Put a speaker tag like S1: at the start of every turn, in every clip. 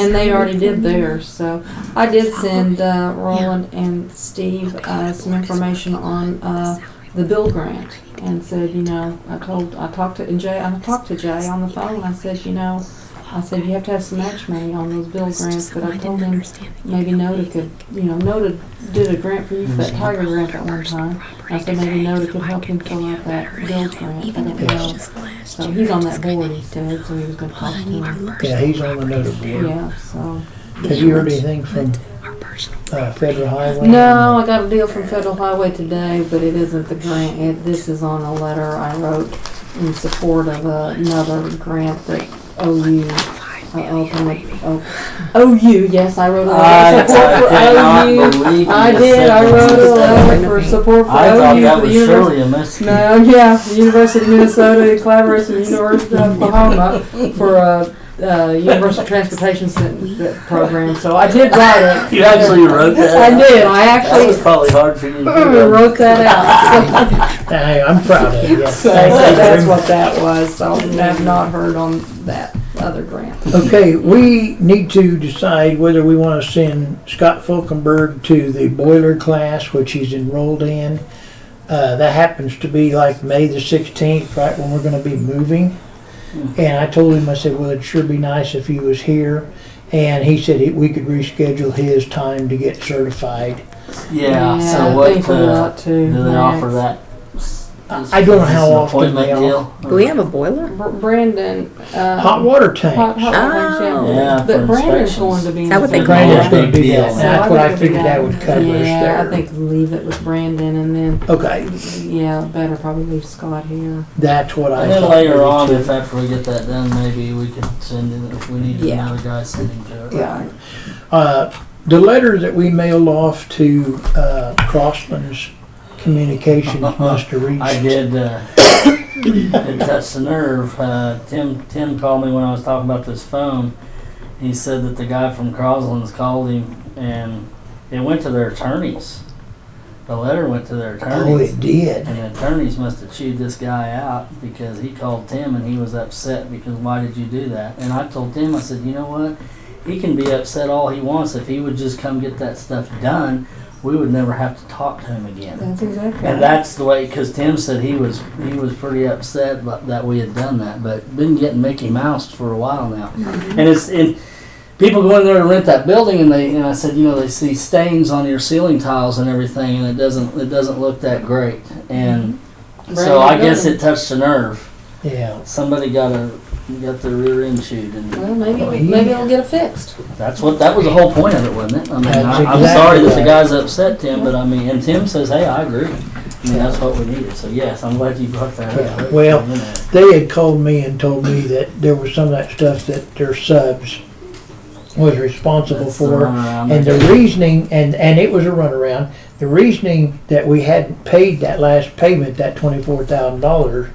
S1: And they already did theirs, so I did send uh, Roland and Steve uh, some information on uh, the bill grant and said, you know, I told, I talked to, and Jay, I talked to Jay on the phone, and I said, you know, I said, you have to have some match money on those bill grants, but I told him maybe Noda could, you know, Noda did a grant for you for that tiger grant at one time. I said maybe Noda could help him fill out that bill grant, I don't know. So he's on that board, he said, so he was gonna talk to him.
S2: Yeah, he's on the notice board.
S1: Yeah, so.
S2: Have you heard anything from uh, Federal Highway?
S1: No,
S3: um,
S1: I got a deal from Federal Highway today, but it isn't the grant. It, this is on a letter I wrote in support of another grant that OU, uh, ultimate, oh, OU, yes, I wrote a letter
S3: I
S1: in support for OU.
S3: believe you
S1: I
S3: just
S1: did,
S3: said
S1: I
S3: that.
S1: wrote a letter for support for
S3: I thought
S1: OU
S3: that
S1: for the
S3: was
S1: university.
S3: Shirley, and that's.
S1: No, yeah, the University of Minnesota in collaboration with the University of Oklahoma for a, uh, Universal Transportation Center program, so I did write it.
S3: You actually wrote that?
S1: I did, I
S3: That was
S1: actually
S3: probably hard for you to do.
S1: wrote that out.
S2: Hey, I'm proud of you.
S1: So
S2: Thank
S1: that's
S2: you.
S1: what that was, so I've not heard on that other grant.
S2: Okay, we need to decide whether we want to send Scott Fulkenberg to the boiler class, which he's enrolled in. Uh, that happens to be like May the sixteenth, right when we're gonna be moving.
S1: Mm.
S2: And I told him, I said, well, it'd sure be nice if he was here. And he said he- we could reschedule his time to get certified.
S3: Yeah, so
S1: I think
S3: what,
S1: we
S3: uh,
S1: ought
S3: do
S1: to.
S3: they offer
S1: next.
S3: that?
S2: I don't know how often they
S4: Do we have a boiler?
S1: Br- Brandon, uh.
S2: Hot water
S1: Hot,
S2: tanks.
S1: hot
S4: Oh.
S1: water,
S3: Yeah,
S1: yeah.
S3: for
S1: But Brandon's
S3: inspections.
S1: going to be.
S4: Is that what they
S1: in
S4: call
S1: charge.
S2: Brandon's
S3: it?
S2: gonna do
S3: Yeah.
S2: that. That's what I
S1: think we
S2: figured that
S1: got-
S2: would cover us
S1: Yeah, I
S2: there.
S1: think leave it with Brandon and then,
S2: Okay,
S1: yeah, better probably leave Scott here.
S2: that's what I
S3: And
S2: thought.
S3: then later on,
S2: too.
S3: if after we get that done, maybe we can send him, if we need
S1: Yeah.
S3: another guy, send him to it.
S1: Yeah.
S2: Uh, The letter that we mailed off to uh, Crossland's Communications must have
S3: I
S2: reached.
S3: did. Uh, it touched the nerve. Uh, Tim Tim called me when I was talking about this phone. He said that the guy from Crosland's called him, and it went to their attorneys. The letter went to their
S2: Oh,
S3: attorneys,
S2: it did.
S3: and the attorneys must have chewed this guy out because he called Tim and he was upset because why did you do that? And I told Tim, I said, you know what? He can be upset all he wants. If he would just come get that stuff done, we would never have to talk to him again.
S1: That's exactly.
S3: And that's the way, because Tim said he was he was pretty upset bu- that we had done that, but been getting Mickey Mouse for a while now, and it's and people go in there to rent that building, and they and I said you know they see stains on your ceiling tiles and everything, and it doesn't it doesn't look that great, and so I guess it touched a nerve.
S2: Yeah.
S3: Somebody got a got their rear end chewed, and
S1: Well, maybe,
S2: Oh,
S1: we-
S2: he-
S1: maybe it'll get it fixed.
S3: that's what that was the whole point of it, wasn't it? I mean,
S2: That's
S3: I, I'm
S2: exactly
S3: sorry that the
S2: right.
S3: guy's upset, Tim, but I mean, and Tim says, hey, I agree. I mean, that's what we needed. So yes, I'm glad you brought that
S2: Yeah,
S3: up.
S2: well- They had called me and told me that there was some of that stuff that their subs was responsible for.
S3: uh,
S2: And the reasoning, and, and it was a runaround, the reasoning that we hadn't paid that last payment, that twenty-four thousand dollars,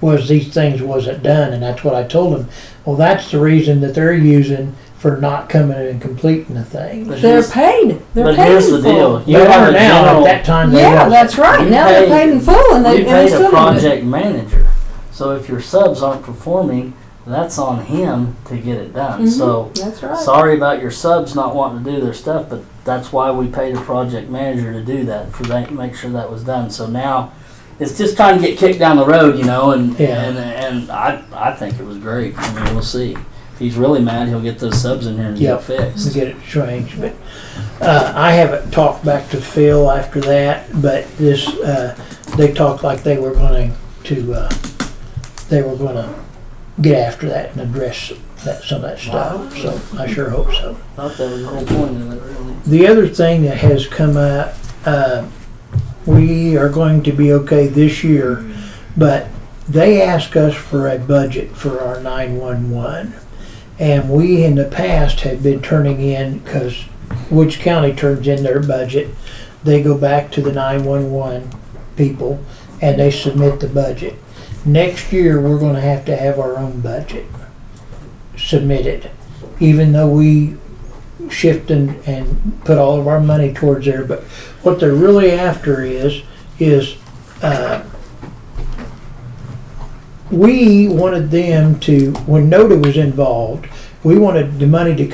S2: was these things wasn't done, and that's what I told them. Well, that's the reason that they're using for not coming in and completing the thing.
S3: But
S1: They're
S3: here's,
S1: paid. They're
S3: but
S1: paid
S3: here's
S1: in
S3: the
S1: full.
S3: deal. You
S2: They
S3: have
S2: are
S3: a
S2: now,
S3: general,
S2: at that time they
S1: Yeah,
S2: were.
S1: that's right.
S3: You
S1: Now
S3: pay-
S1: they're paid in full and they,
S3: you
S1: and they
S3: paid a
S1: still haven't done it.
S3: project manager. So if your subs aren't performing, that's on him to get it done.
S1: Mm-hmm.
S3: So
S1: That's right.
S3: sorry about your subs not wanting to do their stuff, but that's why we paid a project manager to do that for that, make sure that was done. So now it's just trying to get kicked down the road, you know, and
S2: Yeah.
S3: and, and I I think it was great. I mean, we'll see. If he's really mad, he'll get those subs in here and
S2: Yep.
S3: get it
S2: to
S3: fixed.
S2: get it changed, but, uh, I haven't talked back to Phil after that, but this, uh, they talked like they were going to, uh, they were gonna get after that and address that, some of that stuff, so I sure hope so.
S3: I thought that was the whole point of it, really.
S2: The other thing that has come up, uh, we are going to be okay this year, but they ask us for a budget for our 911. And we in the past have been turning in, because Woods County turns in their budget, they go back to the 911 people and they submit the budget. Next year, we're going to have to have our own budget submitted, even though we shift and, and put all of our money towards there. But what they're really after is, is, uh, we wanted them to, when NODA was involved, we wanted the money to